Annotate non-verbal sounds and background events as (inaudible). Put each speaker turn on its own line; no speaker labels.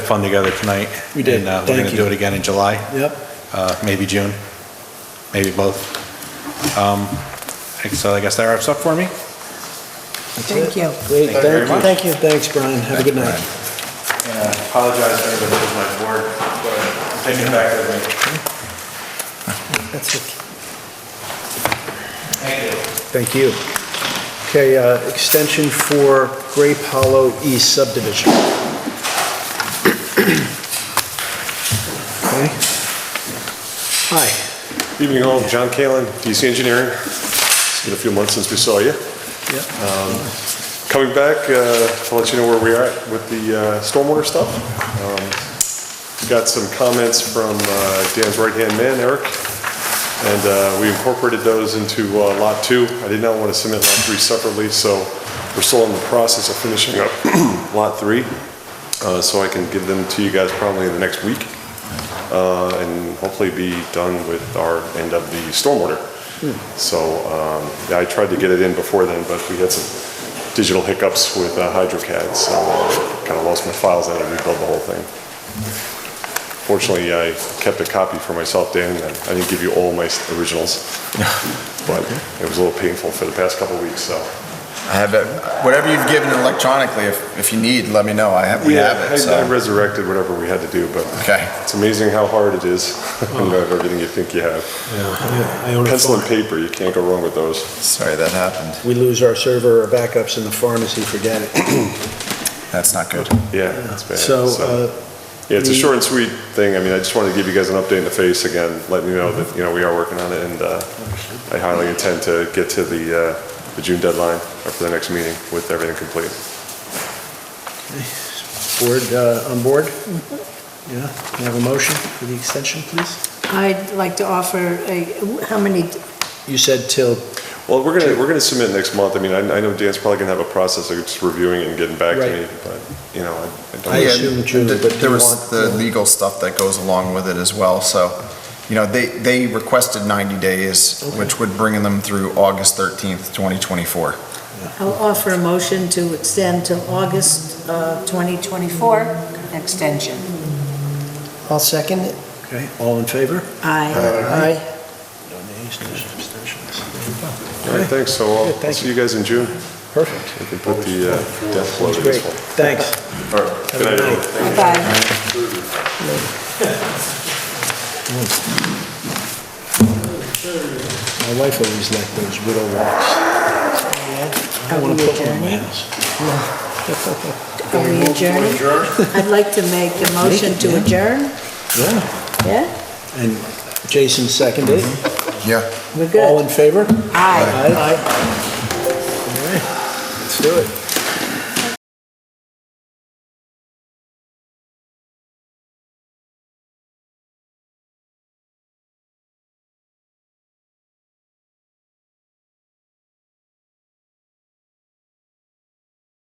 fun together tonight.
We did.
And, uh, We're going
Thank
to
you.
do it again in July,
Yep.
uh, maybe June, maybe both. Um, So I guess that wraps up for me.
Thank you.
Great,
Thank you very
thank you.
much.
Thank you. Thanks, Brian. Have a good night.
And I apologize to everybody who's my board, but I'm taking it back with me.
That's it.
Thank you.
Thank you. Okay, uh, extension for Grape Hollow East subdivision. Okay. Hi.
Evening all, John Kalin, DC Engineering. It's been a few months since we saw you. Um,
Yep.
Coming back uh, to let you know where we are at with the uh, stormwater stuff. Um, Got some comments from uh, Dan's right-hand man, Eric, and uh, we incorporated those into uh, Lot 2. I did not want to submit Lot 3 separately, so we're still in the process of finishing up (clears throat) Lot 3, uh, so I can give them to you guys probably in the next week, uh, and hopefully be done with our end of the stormwater. So um, yeah, I tried to get it in before then, but we had some digital hiccups with uh, HydroCAD, so kind of lost my files. I had to rebuild the whole thing. Fortunately, I kept a copy for myself, Dan, and I didn't give you all my (laughs) originals, but it was a little painful for the past couple of weeks, so.
I have it, whatever you've given electronically, if, if you need, let me know, I have, we
Yeah,
have
I- I
it, so.
resurrected whatever we had to do, but
Okay.
it's amazing how hard it is (laughs) when you have everything you think you have.
Yeah, I own a
Pencil and
farm.
paper, you can't go wrong with those.
Sorry that happened,
We lose our server or backups in the pharmacy, forget it.
that's not good.
Yeah, it's bad.
So, uh,
Yeah, it's a
We-
short and sweet thing. I mean, I just wanted to give you guys an update in the face again, letting you know that, you know, we are working on it, and uh, I highly intend to get to the, uh, the June deadline or for the next meeting with everything complete.
board, uh, on board? Yeah, can I have a motion for the extension, please?
I'd like to offer a, how many,
You said till,
Well, we're gonna, we're gonna submit next month. I mean, I I know Dan's probably gonna have a process of just reviewing it and getting back to
Right.
me, but, you know, I- I don't.
I assume
And
June,
th-
but do
There
you
was
want-
the legal stuff that goes along with it as well, so, you know, they, they requested 90 days, which would bring them through August 13th, 2024.
I'll offer a motion to extend till August uh, 2024 extension.
I'll second it.
okay, all in favor?
Aye.
Aye.
No nays, no abstentions.
All right, thanks. So I'll
Yeah,
I'll
thank
see you guys in June.
Perfect.
We can put the uh, death blow to
Great,
this one.
thanks.
All right.
Have a good
everyone.
night.
Bye-bye.
My wife always liked those widow walks. I
Are
want
we
to put one in my
adjourning?
house.
Are we adjourning? I'd like to make a motion to adjourn,
Yeah,
yeah?
and Jason seconded. it.
Yeah.
We're
All
good.
in favor?
Mm-hmm. Aye.
Aye. All right, Let's do it.